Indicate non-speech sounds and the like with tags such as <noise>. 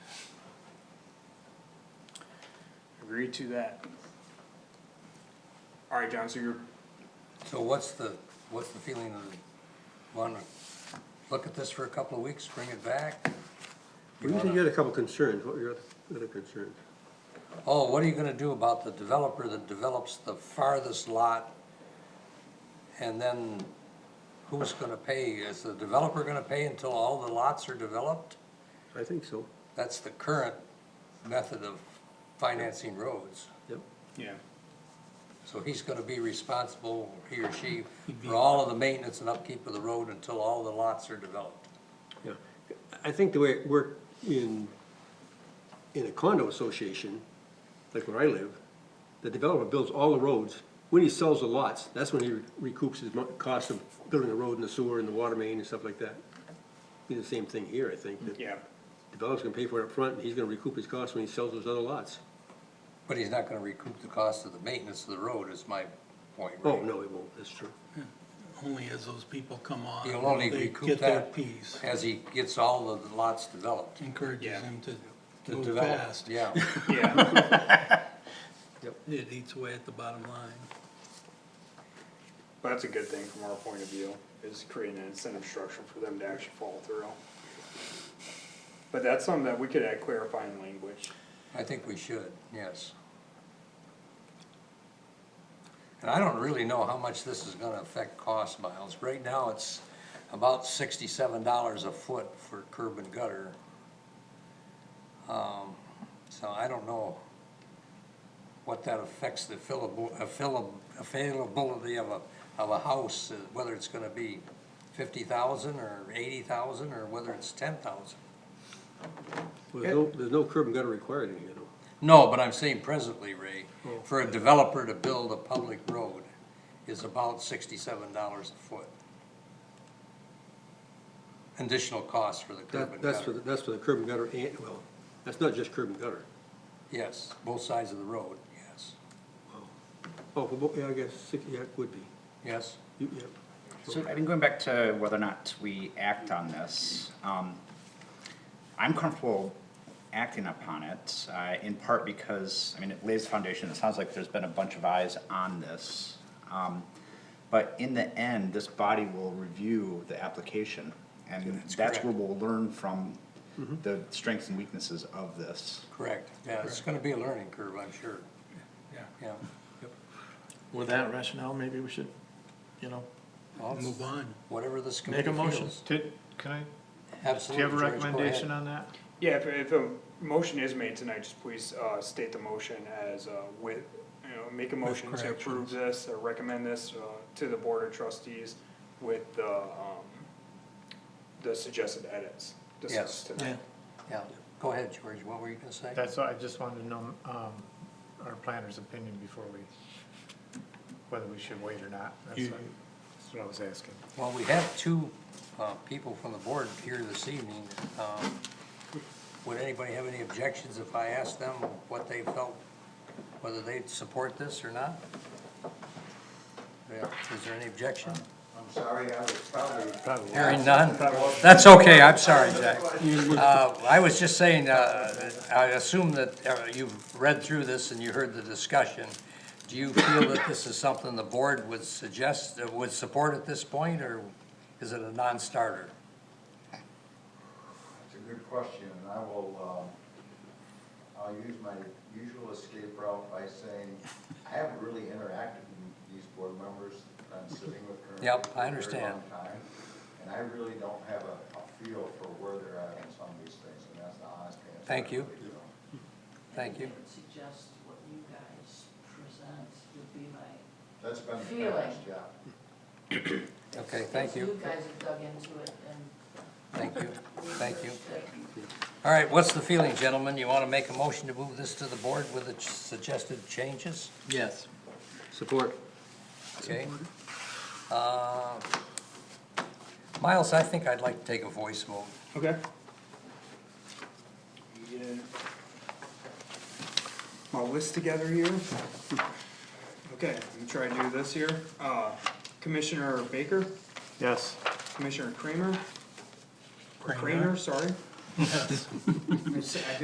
agree to that. All right, John, so you're, So what's the, what's the feeling of, the wanna look at this for a couple of weeks, bring it back? You said you had a couple concerns, what were your other- other concerns? Oh, what are you gonna do about the developer that develops the farthest lot? And then who's gonna pay? Is the developer gonna pay until all the lots are developed? I think so, That's the current method of financing roads. yep. yeah, So he's gonna be responsible, he or she, for all of the maintenance and upkeep of the road until all the lots are developed. Yeah, I think the way it worked in, in a condo association, like where I live, the developer builds all the roads. When he sells the lots, that's when he recoups his mon- cost of building the road and the sewer and the water main and stuff like that. Be the same thing here, I think, that yeah. developer's gonna pay for it up front, and he's gonna recoup his cost when he sells those other lots. But he's not gonna recoup the cost of the maintenance of the road is my point, Oh, right? no, he won't, that's true. Only as those people come on, He'll only they recoup get their that piece. as he gets all of the lots developed. Yeah. Encourages them to to move develop. fast. Yeah, <laughs> Yeah, It eats away at the bottom line. but that's a good thing from our point of view, is creating an incentive structure for them to actually follow through. But that's something that we could add clarifying language. I think we should, yes. And I don't really know how much this is gonna affect cost miles. Right now, it's about sixty-seven dollars a foot for curb and gutter. Um, so I don't know what that affects the fillable, available, availability of a, of a house, uh, whether it's gonna be fifty thousand or eighty thousand, or whether it's ten thousand. Well, There's no, there's no curb and gutter required in here, though. No, but I'm saying presently, Ray, Oh. for a developer to build a public road is about sixty-seven dollars a foot. Additional cost for the curb That, and that's for, the- gutter, that's for the curb and gutter and, well, that's not just curb and gutter. yes, both sides of the road, yes, Oh, for bo- yeah, I guess, six- yeah, it would be. yes. You- yeah. So I think going back to whether or not we act on this, um, I'm comfortable acting upon it, uh, in part because, I mean, it lays the foundation, it sounds like there's been a bunch of eyes on this. Um, but in the end, this body will review the application, and That's that's correct. Mm-hmm. where we'll learn from the strengths and weaknesses of this. Correct, yeah, it's gonna be a learning curve, I'm sure. Yeah. Yeah, With that rationale, maybe we should, you know, Well, Move on. whatever this make committee a motion. feels. Did, can I, do you Absolutely. have a George, go recommendation ahead. on that? Yeah, if, if a motion is made tonight, just please, uh, state the motion as, uh, with, you know, make a motion to approve corrections. this, or recommend this, uh, to the board of trustees with the, um, the suggested edits discussed Yes. tonight. Yeah, go ahead, George, what were you gonna say? That's, all- I just wanted to know, um, our planner's opinion before we, whether we should wait or not. That's You- what, that's what I was asking. Well, we have two uh, people from the board here this evening. Um, Would anybody have any objections if I asked them what they felt, whether they'd support this or not? Yeah, Is there any objection? I'm sorry, I was probably. Probably. Hearing none? That's okay, I'm sorry, Jack. Uh, I was just saying, uh, I assume that uh, you've read through this and you heard the discussion. Do you feel that this is something the board would suggest, uh, would support at this point, or is it a non-starter? It's a good question, and I will, um, I'll use my usual escape route by saying, I haven't really interacted with these board members that I'm sitting with currently. Yep, I for a very understand. long time, And I really don't have a, a feel for where they're at on some of these things, and that's the honest answer. Thank I you. really don't. Thank you. I would suggest what you guys present would be my. That's been the Feeling. past, yeah. Okay, thank You you, guys have dug into it and. thank you, thank you. researched it. All right, what's the feeling, gentlemen? You want to make a motion to move this to the board with the ch- suggested changes? Yes. Support. Okay. Uh, Miles, I think I'd like to take a voice vote. Okay. Get My list together here. Okay, I'm gonna try to do this here. Uh, Commissioner Baker, Yes. Commissioner Kramer, or Kramer. Craner, sorry. I